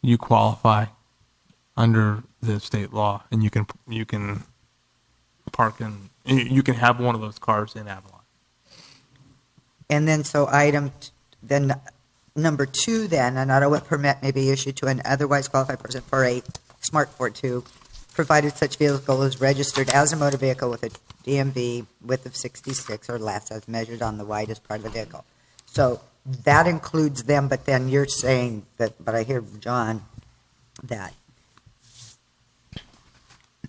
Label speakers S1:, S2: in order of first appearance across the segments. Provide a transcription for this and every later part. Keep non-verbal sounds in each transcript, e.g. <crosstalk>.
S1: you qualify under the state law, and you can you can park in you you can have one of those cars in Avalon.
S2: And then, so item, t- then, number two then, an auto permit may be issued to an otherwise qualified person for a smart Ford two, provided such vehicle is registered as a motor vehicle with a DMV width of 66 or less as measured on the widest part of the vehicle. So that includes them, but then you're saying that, but I hear John, that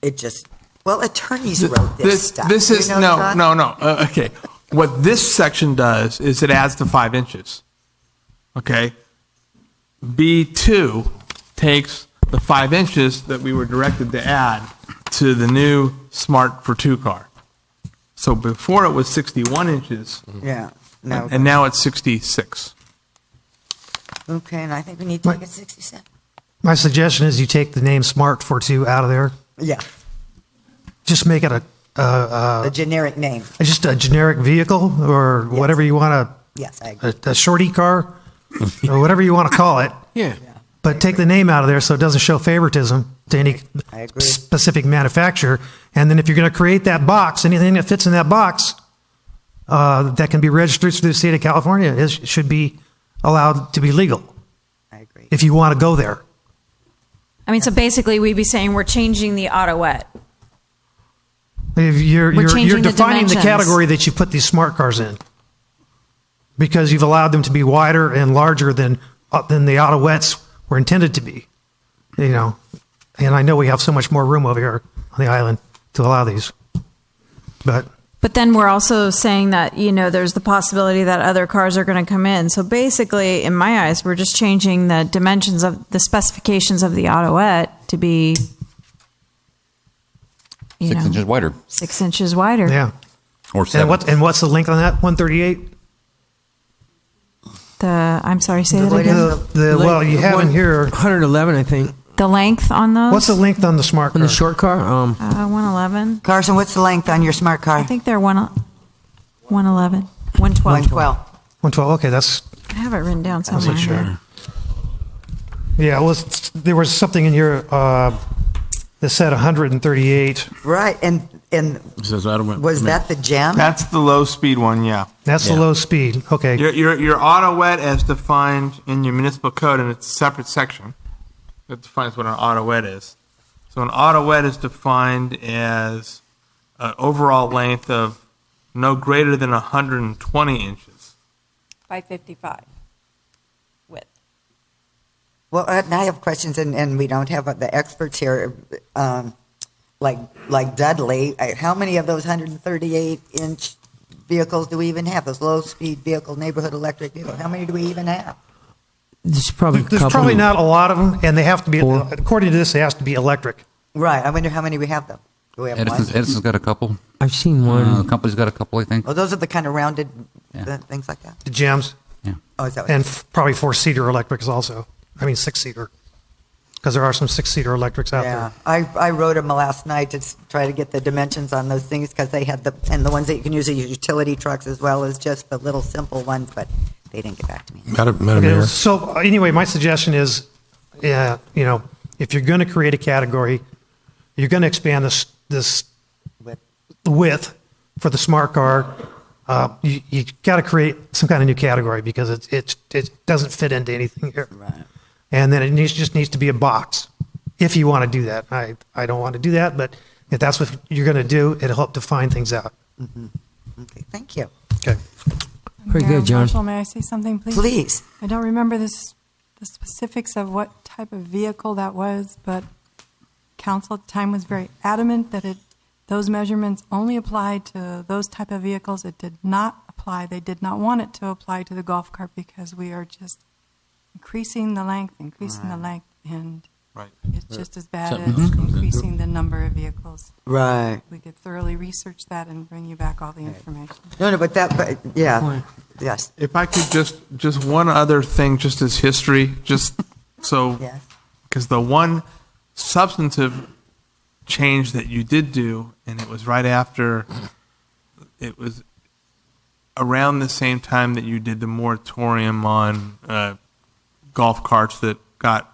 S2: it just, well, attorneys wrote this stuff.
S1: This
S2: You
S1: is,
S2: know,
S1: no,
S2: John?
S1: no, no, Uh, okay. What this section does is it adds the five inches. Okay? B2 takes the five inches that we were directed to add to the new Smart for Two car. So before it was 61 inches,
S2: Yeah, no.
S1: and now it's 66.
S2: Okay, and I think we need to make it 67.
S3: My suggestion is you take the name Smart for two out of there.
S2: Yeah,
S3: Just make it a,
S2: the generic name.
S3: just a generic vehicle or whatever you want
S2: Yes, I agree.
S3: to, a, a shorty
S2: <laughs>
S3: car or whatever you want to call it.
S1: Yeah.
S3: But take the name out of there so it doesn't show favoritism to any
S2: I agree.
S3: specific manufacturer. And then if you're going to create that box, anything that fits in that box uh, that can be registered through the state of California is, should be allowed to be legal
S2: I agree.
S3: if you want to go there.
S4: I mean, so basically, we'd be saying we're changing the autoet.
S3: If you're,
S4: We're
S3: you're, you're
S4: changing the
S3: defining the,
S4: dimensions.
S3: category that you put these smart cars in because you've allowed them to be wider and larger than uh, than the autoettes were intended to be. You know, and I know we have so much more room over here on the island to allow these, but
S4: But then we're also saying that, you know, there's the possibility that other cars are going to come in. So basically, in my eyes, we're just changing the dimensions of the specifications of the autoet to be, you
S5: six
S4: know,
S5: inches wider
S4: six inches wider.
S3: yeah.
S5: or seven.
S3: And what and what's the length on that? One thirty eight.
S4: The, I'm sorry, say that again.
S3: The, the, well, you have in here.
S6: 111, I think.
S4: The length on those?
S3: What's the length on the smart
S6: On
S3: car?
S6: the short car, um,
S4: Uh, 111.
S2: Carson, what's the length on your smart car?
S3: Ah.
S4: I think they're one, 111, 112.
S2: 112.
S3: One twelve. Okay, that's
S4: I have it written down somewhere.
S3: yeah. Well, it's- there was something in here uh, that said one hundred and thirty eight.
S2: Right, and, and
S7: Says I don't.
S2: was that the gem?
S1: That's the low-speed one, yeah.
S3: That's the
S5: Yeah.
S3: low speed. Okay.
S1: Your, your, your auto wet as defined in your municipal code, and it's a separate section that defines what an auto wet is. So an auto wet is defined as an overall length of no greater than 120 inches.
S8: by 55 width.
S2: Well, and I have questions, and, and we don't have uh, the experts here, um, like, like Dudley. I- How many of those 138 inch vehicles do we even have? Those low speed vehicle, neighborhood electric vehicle, how many do we even have?
S6: there's probably a
S3: There's
S6: couple.
S3: probably not a lot of them, and they have to be, uh,
S6: Four.
S3: according to this, they have to be electric.
S2: Right, I wonder how many we have though. Do we have
S5: Edison's,
S2: one?
S5: Edison's got a couple.
S6: I've seen one.
S5: Uh, the company's got a couple, I
S3: Uh,
S5: think.
S2: Oh, those are the kind of rounded
S5: Yeah.
S2: uh, things like that.
S3: The jams
S5: Yeah.
S2: Oh, is that what?
S3: and f- probably four seater electrics also. I mean six seater, because there are some six seater electrics out
S2: Yeah,
S3: there.
S2: I, I wrote them last night to s- try to get the dimensions on those things because they had the, and the ones that you can use are your utility trucks as well as just the little simple ones, but they didn't get back to me.
S7: Madam,
S3: Okay,
S7: Madam Mayor,
S3: so uh, anyway, my suggestion is, yeah, you know, if you're going to create a category, you're going to expand this this
S2: But
S3: width for the smart car. Uh, you you got to create some kind of new category because it it it doesn't fit into anything here.
S2: Right.
S3: And then it needs, just needs to be a box if you want to do that. I I don't want to do that, but if that's what you're going to do, it'll help define things out.
S2: Okay, thank you.
S3: Okay.
S6: Pretty
S8: Mayor
S6: good, John.
S8: Marshall, may I say something, please?
S2: Please.
S8: I don't remember this, the specifics of what type of vehicle that was, but council at the time was very adamant that it, those measurements only applied to those type of vehicles. It did not apply, they did not want it to apply to the golf cart because we are just increasing the length, increasing the length, and
S1: Right.
S8: it's just as bad
S7: Something
S8: as
S7: else comes in.
S8: increasing the number of vehicles.
S2: Right.
S8: We could thoroughly research that and bring you back all the information.
S2: No, no, but that, but, yeah, yes,
S1: If I could just, just one other thing, just as history, just so
S2: yes.
S1: because the one substantive change that you did do, and it was right after, it was around the same time that you did the moratorium on uh, golf carts that got